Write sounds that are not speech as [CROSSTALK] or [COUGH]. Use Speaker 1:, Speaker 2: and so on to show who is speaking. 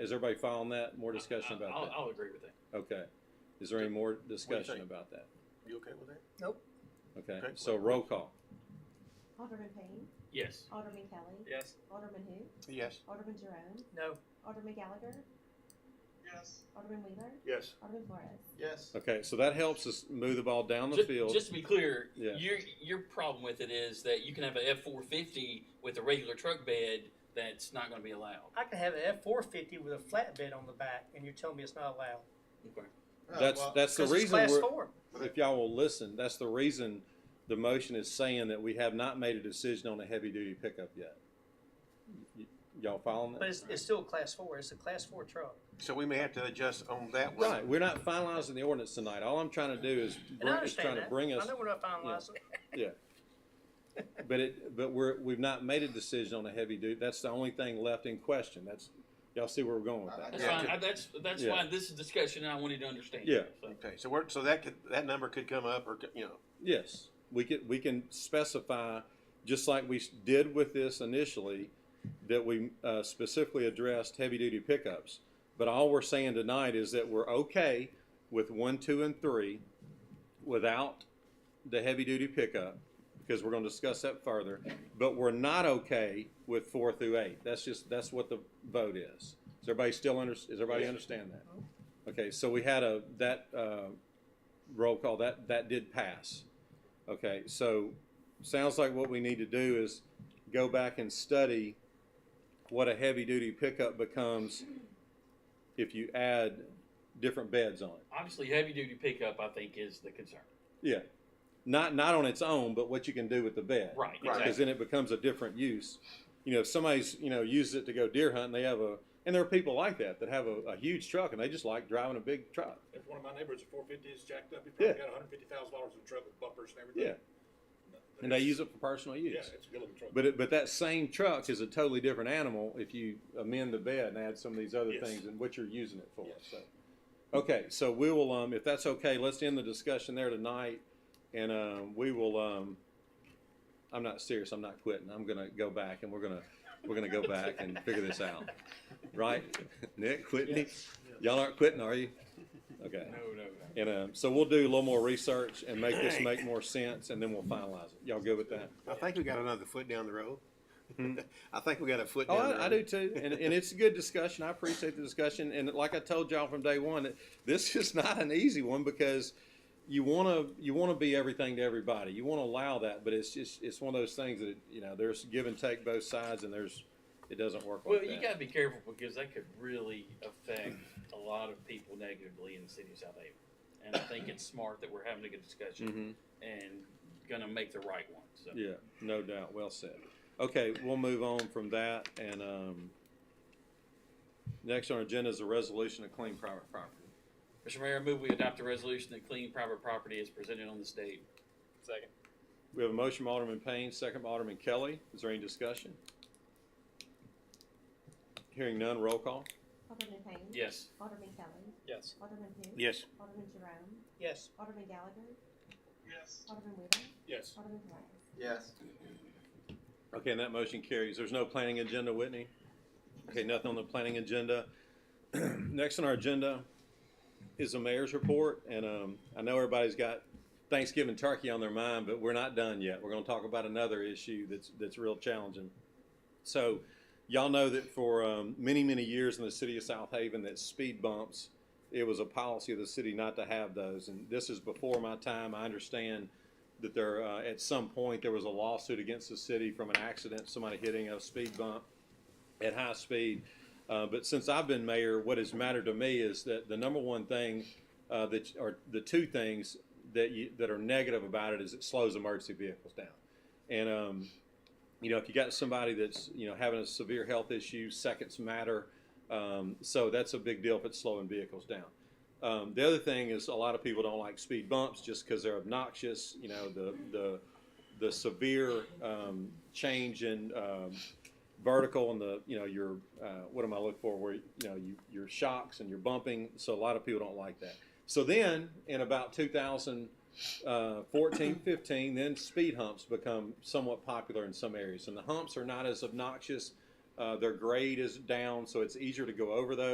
Speaker 1: Is everybody following that? More discussion
Speaker 2: I'll,
Speaker 1: about
Speaker 2: I'll agree with that.
Speaker 1: that? Okay. Is there any more discussion
Speaker 3: think?
Speaker 1: about that?
Speaker 3: You okay with that?
Speaker 1: Okay,
Speaker 3: Okay.
Speaker 1: so roll call.
Speaker 4: Alderman Payne,
Speaker 2: Yes.
Speaker 4: Alderman Kelly,
Speaker 2: Yes.
Speaker 4: Alderman who,
Speaker 3: Yes.
Speaker 4: Alderman Jerome,
Speaker 2: No.
Speaker 4: Alderman Gallagher,
Speaker 5: Yes.
Speaker 4: Alderman Wheeler,
Speaker 3: Yes.
Speaker 4: Alderman Flores.
Speaker 5: Yes.
Speaker 1: Okay, so that helps us move the ball down the
Speaker 2: Ju-
Speaker 1: field.
Speaker 2: Just to be clear,
Speaker 1: Yeah.
Speaker 2: your your problem with it is that you can have an F four fifty with a regular truck bed that's not going to be allowed.
Speaker 6: I can have an F four fifty with a flatbed on the back, and you're telling me it's not allowed.
Speaker 2: Okay.
Speaker 1: That's, that's the
Speaker 6: Oh, 'Cause it's
Speaker 1: reason
Speaker 6: class
Speaker 1: we're,
Speaker 6: four.
Speaker 1: if y'all will listen, that's the reason the motion is saying that we have not made a decision on a heavy-duty pickup yet. Y- Y'all following
Speaker 6: But
Speaker 1: that?
Speaker 6: it's, it's still a class four. It's a class four truck.
Speaker 3: So we may have to adjust on that one.
Speaker 1: Right, we're not finalizing the ordinance tonight. All I'm trying to do is,
Speaker 6: And I
Speaker 1: bring- is trying
Speaker 6: understand
Speaker 1: to
Speaker 6: that.
Speaker 1: bring
Speaker 6: I
Speaker 1: us,
Speaker 6: know we're not finalizing.
Speaker 1: but it, but we're, we've not made a decision on a heavy-duty. That's the only thing left in question. That's, y'all see where we're going with that?
Speaker 2: That's
Speaker 3: Yeah,
Speaker 2: fine.
Speaker 3: to-
Speaker 2: I, that's that's
Speaker 1: Yeah.
Speaker 2: why this is discussion I wanted to understand.
Speaker 1: Yeah.
Speaker 2: So,
Speaker 3: Okay, so we're, so that could, that number could come up or, you know,
Speaker 1: Yes, we can, we can specify, just like we s- did with this initially, that we uh, specifically addressed heavy-duty pickups. But all we're saying tonight is that we're okay with one, two, and three without the heavy-duty pickup, because we're gonna discuss that further. But we're not okay with four through eight. That's just, that's what the vote is. Is everybody still under, does everybody
Speaker 3: Yes.
Speaker 1: understand that? Okay, so we had a, that, uh, roll call, that, that did pass. Okay, so, sounds like what we need to do is go back and study what a heavy-duty pickup becomes if you add different beds on it.
Speaker 2: obviously, heavy duty pickup I think is the concern.
Speaker 1: Yeah, not, not on its own, but what you can do with the bed.
Speaker 2: Right.
Speaker 3: Right.
Speaker 1: Because
Speaker 2: Exactly.
Speaker 1: then it becomes a different use. You know, if somebody's, you know, uses it to go deer hunting, they have a, and there are people like that, that have a, a huge truck and they just like driving a big truck.
Speaker 7: If one of my neighbors at four fifty is jacked up, he probably
Speaker 1: Yeah.
Speaker 7: got hundred fifty thousand dollars in truck with bumpers and
Speaker 1: Yeah,
Speaker 7: everything.
Speaker 1: and they use it for personal use.
Speaker 7: Yeah, it's a good looking truck.
Speaker 1: But it, but that same truck is a totally different animal if you amend the bed and add some of these other
Speaker 7: Yes.
Speaker 1: things and what you're using it for.
Speaker 7: Yes.
Speaker 1: So, okay, so we will um, if that's okay, let's end the discussion there tonight, and um, we will um, I'm not serious. I'm not quitting. I'm gonna go back and we're gonna we're gonna go back and figure this out, right? [LAUGHS] Nick, Whitney, y'all aren't quitting, are you? Okay.
Speaker 2: No, no, no.
Speaker 1: And um, so we'll do a little more research and make this make more sense, and then we'll finalize it. Y'all good with that?
Speaker 3: I think we got another foot down the road. [LAUGHS] I think we got a foot
Speaker 1: Mm-hmm. Oh,
Speaker 3: down the road.
Speaker 1: I, I do too, and, and it's a good discussion. I appreciate the discussion, and like I told y'all from day one, that this [LAUGHS] is not an easy one because you want to you want to be everything to everybody. You want to allow that, but it's just it's one of those things that you know there's give and take both sides, and there's it doesn't work
Speaker 2: Well,
Speaker 1: like
Speaker 2: you
Speaker 1: that.
Speaker 2: got to be careful because that could really affect a lot of people negatively in the city of South Haven. And I think it's smart that we're having a good discussion
Speaker 1: Mhm.
Speaker 2: and going to make the right one. So.
Speaker 1: Yeah, no doubt. Well said. Okay, we'll move on from that, and um, next on our agenda is a resolution to claim private property.
Speaker 2: Mr. Mayor, I move we adopt a resolution to clean private property as presented on this date.
Speaker 7: Second.
Speaker 1: We have a motion by Alderman Payne, second by Alderman Kelly. Is there any discussion? Hearing none, roll call.
Speaker 4: Alderman Payne.
Speaker 2: Yes.
Speaker 4: Alderman Kelly,
Speaker 7: Yes.
Speaker 4: Alderman who,
Speaker 3: Yes.
Speaker 4: Alderman Jerome,
Speaker 6: Yes.
Speaker 4: Alderman Gallagher,
Speaker 5: Yes.
Speaker 4: Alderman Wheeler,
Speaker 7: Yes.
Speaker 4: Alderman Flores.
Speaker 5: Yes.
Speaker 1: Okay, and that motion carries. There's no planning agenda, Whitney? Okay, nothing on the planning agenda. [CLEARS THROAT] Next on our agenda is the mayor's report, and um, I know everybody's got Thanksgiving turkey on their mind, but we're not done yet. We're gonna talk about another issue that's, that's real challenging. So, y'all know that for um, many, many years in the city of South Haven, that speed bumps, it was a policy of the city not to have those, and this is before my time. I understand that there, uh, at some point, there was a lawsuit against the city from an accident, somebody hitting a speed bump at high speed. Uh, but since I've been mayor, what has mattered to me is that the number one thing, uh, that, or the two things that you, that are negative about it is it slows emergency vehicles down. And, um, you know, if you got somebody that's, you know, having a severe health issue, seconds matter. Um, so that's a big deal if it's slowing vehicles down. Um, the other thing is a lot of people don't like speed bumps just because they're obnoxious. You know, the, the, the severe, um, change in, um, vertical and the, you know, your, uh, what am I looking for? Where, you know, you, your shocks and your bumping. So a lot of people don't like that. So then in about 2000, uh, 14, 15, then speed humps become somewhat popular in some areas. And the humps are not as obnoxious. Uh, their grade is down, so it's easier to go over those.